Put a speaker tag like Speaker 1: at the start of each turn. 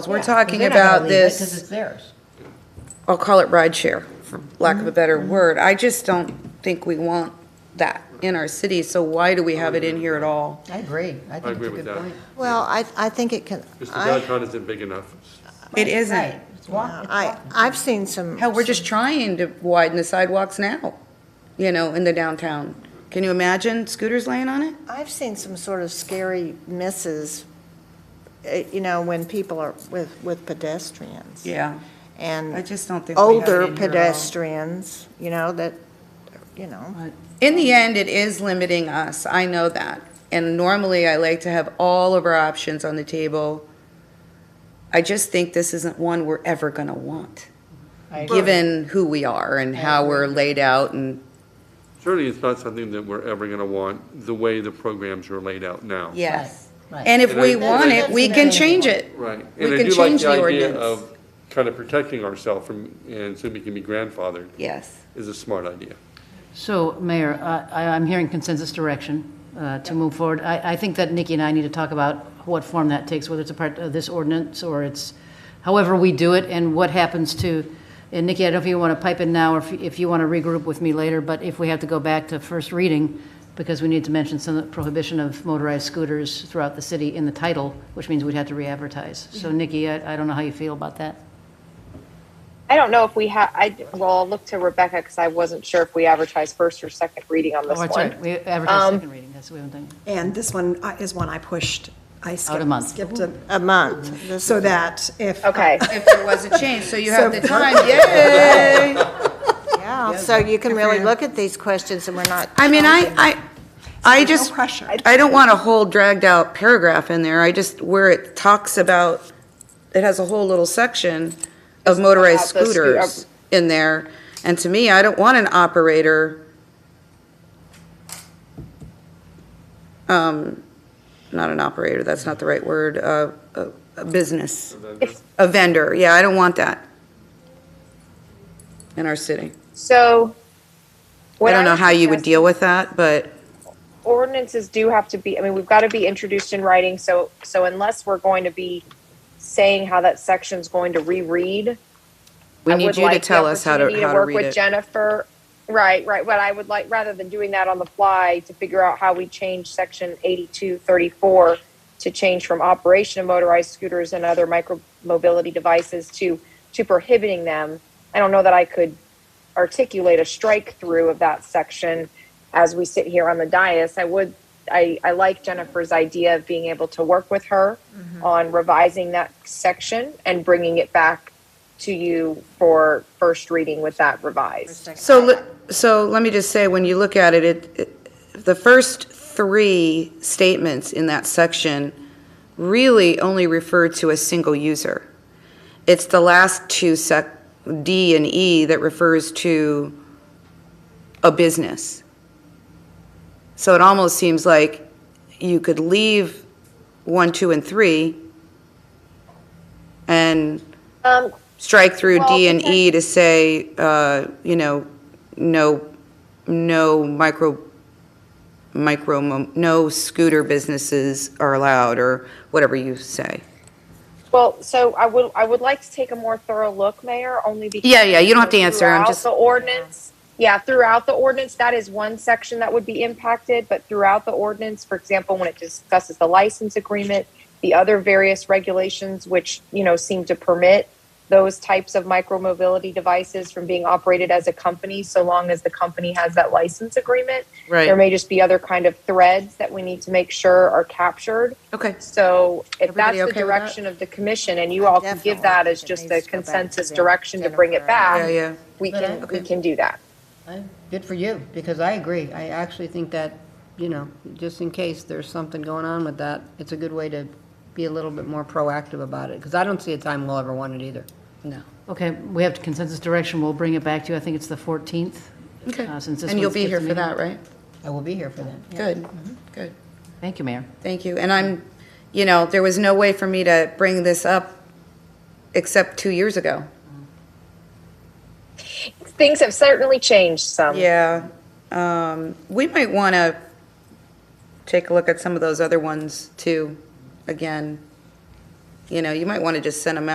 Speaker 1: We're
Speaker 2: Yeah, 'cause
Speaker 1: talking
Speaker 2: they're not gonna
Speaker 1: about
Speaker 2: leave it 'cause
Speaker 1: this-
Speaker 2: it's theirs.
Speaker 1: I'll call it rideshare, for lack of a better word. I just don't think we want that in our city, so why do we have it in here at all?
Speaker 2: I agree. I think it's
Speaker 3: agree
Speaker 2: a
Speaker 3: with
Speaker 2: good
Speaker 3: that.
Speaker 2: point.
Speaker 4: Well, I, I think it can,
Speaker 3: Just the
Speaker 4: I,
Speaker 3: downtown isn't big enough.
Speaker 1: It
Speaker 2: Right.
Speaker 1: isn't.
Speaker 2: It's walk- it's
Speaker 4: I,
Speaker 2: walk-
Speaker 4: I've seen some.
Speaker 1: Hell, we're just trying to widen the sidewalks now, you know, in the downtown. Can you imagine scooters laying on it?
Speaker 4: I've seen some sort of scary misses, eh, you know, when people are with, with pedestrians.
Speaker 1: Yeah, I
Speaker 4: And
Speaker 1: just don't think. we have it
Speaker 4: older
Speaker 1: in here at all.
Speaker 4: pedestrians, you know, that, you know.
Speaker 1: In the end, it is limiting us, I know that. And normally, I like to have all of our options on the table. I just think this isn't one we're ever gonna want.
Speaker 2: I agree.
Speaker 1: given who we are and how we're laid out and.
Speaker 3: Surely it's not something that we're ever going to want, the way the programs are laid out now.
Speaker 2: Right, right.
Speaker 1: And if we
Speaker 3: And I-
Speaker 1: want it, we can change it.
Speaker 3: Right.
Speaker 1: We
Speaker 3: And I
Speaker 1: can
Speaker 3: do like
Speaker 1: change
Speaker 3: the
Speaker 1: the
Speaker 3: idea
Speaker 1: ordinance.
Speaker 3: of kind of protecting ourselves from, and so we can be grandfathered,
Speaker 1: Yes.
Speaker 3: is a smart idea.
Speaker 5: So, Mayor, I, I'm hearing consensus direction uh, to move forward. I, I think that Nikki and I need to talk about what form that takes, whether it's a part of this ordinance or it's, however we do it, and what happens to, and Nikki, I don't know if you want to pipe in now or if, if you want to regroup with me later, but if we have to go back to first reading, because we need to mention some prohibition of motorized scooters throughout the city in the title, which means we'd have to re-advertise. So Nikki, I, I don't know how you feel about that.
Speaker 6: I don't know if we have, I, well, I'll look to Rebecca because I wasn't sure if we advertised first or second reading on this
Speaker 5: Oh,
Speaker 6: one.
Speaker 5: that's right. We
Speaker 6: Um,
Speaker 5: advertise second reading, that's what we haven't done.
Speaker 7: And this one uh, is one I pushed, I skipped,
Speaker 5: month.
Speaker 7: skipped a-
Speaker 4: A month. This
Speaker 7: so
Speaker 4: is-
Speaker 7: that if.
Speaker 6: Okay,
Speaker 1: If there was a change, so you have
Speaker 7: So-
Speaker 1: the time, yay!
Speaker 4: Yeah, so you can really look at these questions and we're not.
Speaker 1: I mean, I, I, I
Speaker 7: there's no
Speaker 1: just,
Speaker 7: pressure.
Speaker 1: I don't want a whole dragged out paragraph in there. I just, where it talks about, it has a whole little section of motorized
Speaker 6: about the scoo-
Speaker 1: scooters in there. And to me, I don't want an operator. Um, not an operator, that's not the right word, uh, a, a business, a vendor. Yeah, I don't want that in our city.
Speaker 6: so.
Speaker 1: I
Speaker 6: what
Speaker 1: don't know
Speaker 6: was
Speaker 1: how you would
Speaker 6: suggesting-
Speaker 1: deal with that, but.
Speaker 6: ordinances do have to be, I mean, we've got to be introduced in writing, so, so unless we're going to be saying how that section's going to reread.
Speaker 1: We
Speaker 6: I
Speaker 1: need
Speaker 6: would
Speaker 1: you to
Speaker 6: like the
Speaker 1: tell us how to,
Speaker 6: opportunity
Speaker 1: how to
Speaker 6: work
Speaker 1: read
Speaker 6: with
Speaker 1: it.
Speaker 6: Jennifer, right, right, but I would like, rather than doing that on the fly, to figure out how we change section eighty-two thirty-four to change from operation of motorized scooters and other micro mobility devices to, to prohibiting them. I don't know that I could articulate a strike through of that section as we sit here on the dais. I would, I, I like Jennifer's idea of being able to work with her
Speaker 1: Mm-hmm.
Speaker 6: on revising that section and bringing it back to you for first reading with that revised.
Speaker 1: So, le- so let me just say, when you look at it, it, it- the first three statements in that section really only refer to a single user. It's the last two sec, D and E, that refers to a business. So it almost seems like you could leave one, two, and three and
Speaker 6: Um,
Speaker 1: strike through D
Speaker 6: Well,
Speaker 1: and E to say, uh, you know, no, no micro, micro, mo- no scooter businesses are allowed, or whatever you say.
Speaker 6: well, so I would, I would like to take a more thorough look, Mayor, only because.
Speaker 1: Yeah, yeah, you don't have to answer, I'm
Speaker 6: Throughout
Speaker 1: just-
Speaker 6: The ordinance, yeah, throughout the ordinance, that is one section that would be impacted, but throughout the ordinance, for example, when it discusses the license agreement, the other various regulations which, you know, seem to permit those types of micromobility devices from being operated as a company, so long as the company has that license agreement. There may just be other kind of threads that we need to make sure are captured.
Speaker 1: Okay.
Speaker 6: So if that's
Speaker 1: Everybody
Speaker 6: the
Speaker 1: okay with that?
Speaker 6: direction of the commission and you all can give
Speaker 4: Definitely.
Speaker 6: that as
Speaker 4: It
Speaker 6: just
Speaker 4: needs to go
Speaker 6: a
Speaker 4: back to
Speaker 6: consensus
Speaker 4: Jen-
Speaker 6: direction to bring it
Speaker 4: Jennifer and-
Speaker 1: Yeah,
Speaker 6: back,
Speaker 1: yeah.
Speaker 6: we
Speaker 2: But I-
Speaker 6: can, we can do that.
Speaker 2: I- Good for you, because I agree. I actually think that, you know, just in case there's something going on with that, it's a good way to be a little bit more proactive about it, because I don't see a time we'll ever want it either.
Speaker 5: No. Okay, we have consensus direction, we'll bring it back to you, I think it's the 14th.
Speaker 1: Okay.
Speaker 5: uh, since this
Speaker 1: And you'll
Speaker 5: one
Speaker 1: be here
Speaker 5: skipped a
Speaker 1: for that,
Speaker 5: meeting.
Speaker 1: right?
Speaker 2: I will be here for that.
Speaker 1: Good,
Speaker 5: Mm-hmm.
Speaker 1: good.
Speaker 5: Thank you, Mayor.
Speaker 1: Thank you. And I'm, you know, there was no way for me to bring this up except two years ago.
Speaker 6: Things have certainly changed some.
Speaker 1: Yeah, um, we might want to take a look at some of those other ones too, again. You know, you might want to just send them out.